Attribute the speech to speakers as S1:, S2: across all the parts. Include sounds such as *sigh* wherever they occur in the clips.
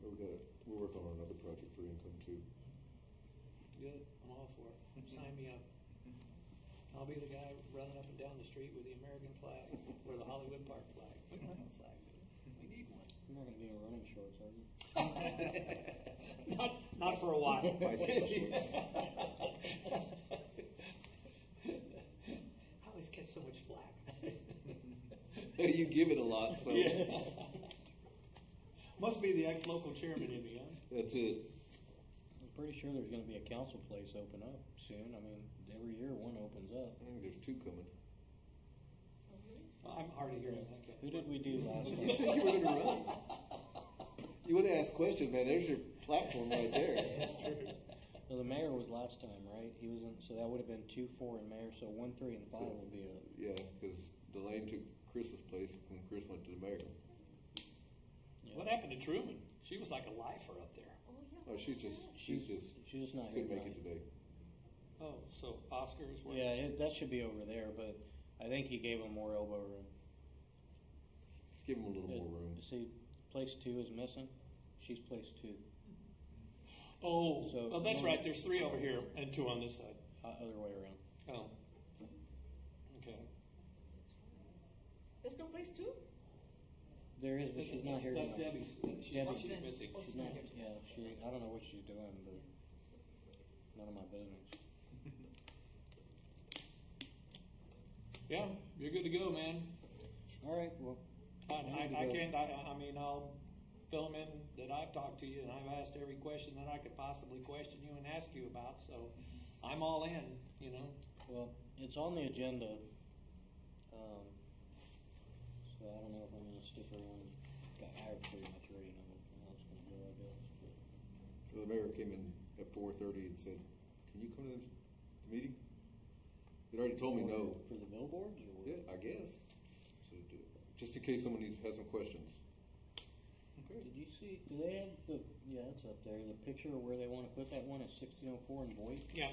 S1: We've got, we're working on another project for income too.
S2: Good, I'm all for it.
S3: Mm-hmm.
S2: Sign me up. I'll be the guy running up and down the street with the American flag or the Hollywood Park
S3: *laughs*
S2: flag. Get my own flag. We need one.
S4: You're not gonna be in running shorts, are you?
S2: *laughs*
S3: Mm-hmm.
S2: Not, not for a
S3: *laughs*
S2: while.
S1: *laughs* Bicycle shorts.
S2: I always catch so much flack.
S3: *laughs* you give it a lot, so
S2: *laughs* Must be the ex-local chairman in me, huh?
S3: that's it.
S4: I'm pretty sure there's gonna be a council place open up soon. I mean, every year one opens up.
S1: I think there's two coming.
S2: Well, I'm already hearing
S4: Who
S2: that.
S4: did we do
S2: *laughs*
S4: last
S3: You
S4: month?
S3: said you were gonna run. You would have asked questions, man. There's your platform right
S2: *laughs*
S4: *laughs*
S3: there.
S4: Well, the mayor was last time, right? He wasn't, so that would've been two, four, and mayor, so one, three, and five would be a,
S1: Yeah, because Delane took Chris's place when Chris went to the mayor.
S2: What happened to Truman? She was like a lifer up there.
S5: Oh, yeah.
S1: Oh, she's just, she's just,
S4: she's just not here
S1: couldn't make it today.
S4: tonight.
S2: Oh, so Oscar is where?
S4: Yeah, it, that should be over there, but I think he gave him more elbow room.
S1: Just give him a little more room.
S4: It- See, place two is missing. She's place two.
S2: Oh,
S4: So-
S2: oh, that's right. There's three over here and two on this side.
S4: Uh, Other way around.
S2: Oh. Okay.
S5: There's no place to?
S4: There is, but she's not here
S2: That's
S4: tonight.
S2: Debbie's. She's-
S4: Debbie.
S2: She's missing.
S5: Oh,
S4: She's not, yeah, she, I don't know what she's doing, but none of my business.
S2: Yeah, you're good to go, man.
S4: All right, well,
S2: I,
S4: I'm good to
S2: I, I
S4: go.
S2: can't, I, I mean, I'll fill them in that I've talked to you and I've asked every question that I could possibly question you and ask you about, so I'm all in, you know?
S4: well, it's on the agenda. Um, so I don't know if I'm gonna stick around. Got hired pretty much already, and I don't know how it's gonna go, I guess.
S1: So the mayor came in at four thirty and said, can you come to the meeting? They already told me no.
S4: For the billboards or what?
S1: Yeah, I guess. So do it. Just in case someone needs, has some questions.
S4: Did you see, do they have the, yeah, it's up there, the picture of where they wanna put that one at sixteen oh four in Boyd?
S2: Yeah.
S4: I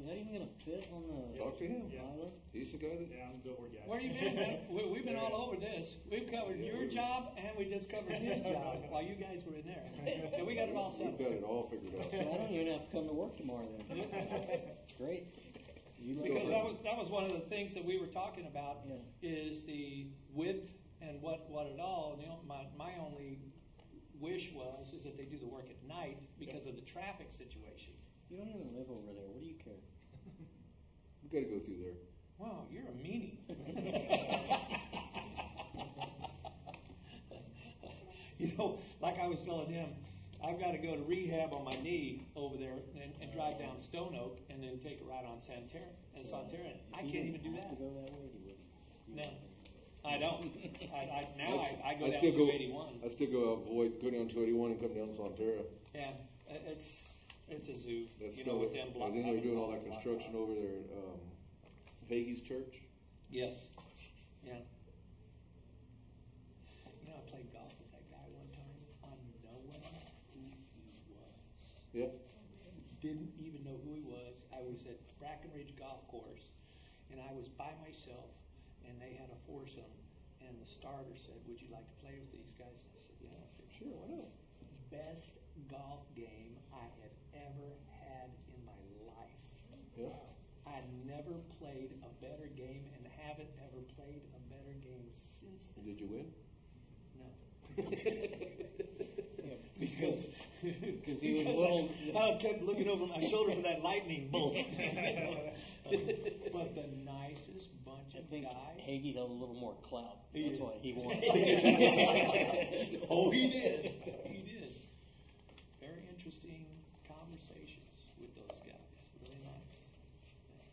S4: mean, Is that even gonna fit on the?
S1: *laughs* Talk to him.
S6: Yeah.
S4: island?
S1: He's the guy that,
S6: Yeah, I'm billboard guy.
S2: Where you been, man? We, we've been all
S6: *laughs*
S2: over this. We've covered your job and we just covered his job while you guys were in there.
S6: *laughs*
S2: And we got it all
S1: we've
S2: settled.
S1: got it all figured out.
S2: *laughs*
S4: I don't even have to come to work tomorrow then. Great. You look-
S2: Because that was, that was one of the things that we were talking about,
S4: Yeah.
S2: is the width and what, what it all, and the on- my, my only wish was, is that they do the work at night because of the traffic situation.
S4: You don't even live over there, what do you care?
S1: We've got to go through there.
S2: Wow, you're a
S1: *laughs*
S2: meanie. you know, like I was telling him, I've got to go to rehab on my knee over there and, and drive down Stone Oak and then take a ride on Santer and Santerre.
S4: If
S2: I can't
S4: you didn't
S2: even do
S4: have
S2: that.
S4: to go that way, you wouldn't. You
S2: No,
S4: wouldn't.
S2: I
S4: *laughs*
S2: don't. I, I, now I, I go down
S1: still
S2: to eighty-one.
S1: I still go avoid go down two eighty one and come down to Sonterra.
S2: Yeah, i- uh, it's, it's a zoo,
S1: That's
S2: you know, with them block.
S1: And then they're doing all that
S2: block-
S1: construction
S2: block-
S1: over there at um, Hagee's Church.
S2: Yes, yeah. You know, I played golf with that guy one time, unknowing who he was.
S1: Yeah.
S2: didn't even know who he was. I was at Brackenridge Golf Course, and I was by myself, and they had a foursome, and the starter said, "Would you like to play with these guys?" And I said, "Yeah, sure, why not?" Best golf game I have ever had in my life.
S1: Yeah.
S2: I never played a better game, and haven't ever played a better game since then.
S1: Did you win?
S2: No.
S4: *laughs* Yeah,
S2: Because, because
S4: he was little-
S2: I, I kept looking over my shoulder for that lightning
S4: *laughs*
S2: bolt. but the nicest bunch
S4: I
S2: of
S4: think
S2: guys.
S4: Hagee had a little more clout,
S2: He
S4: that's
S2: did.
S4: why *laughs* he
S2: *laughs*
S4: won.
S2: oh, he did. He did. Very interesting conversations with those guys. Really nice. Yeah.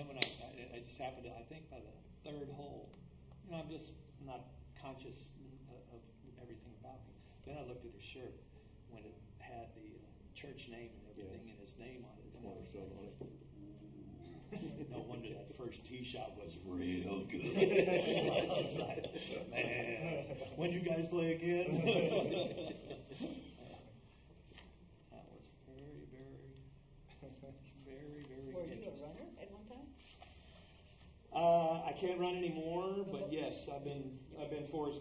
S2: Then when I, I, I just happened to, I think by the third hole, you know, I'm just not conscious of, of everything about me. Then I looked at his shirt when it had the uh, church name and everything
S1: Yeah.
S2: and his name on it. And I
S1: Water
S2: was
S1: stone
S2: like,
S1: on it.
S2: no wonder that first tee shot was real good. *laughs* I was like, man, when you guys play again? *laughs* that was very,
S6: *laughs*
S2: very, very, very
S5: Were you a
S2: interesting.
S5: runner at one time?
S2: Uh, I can't run anymore, but yes, I've been, I've been forced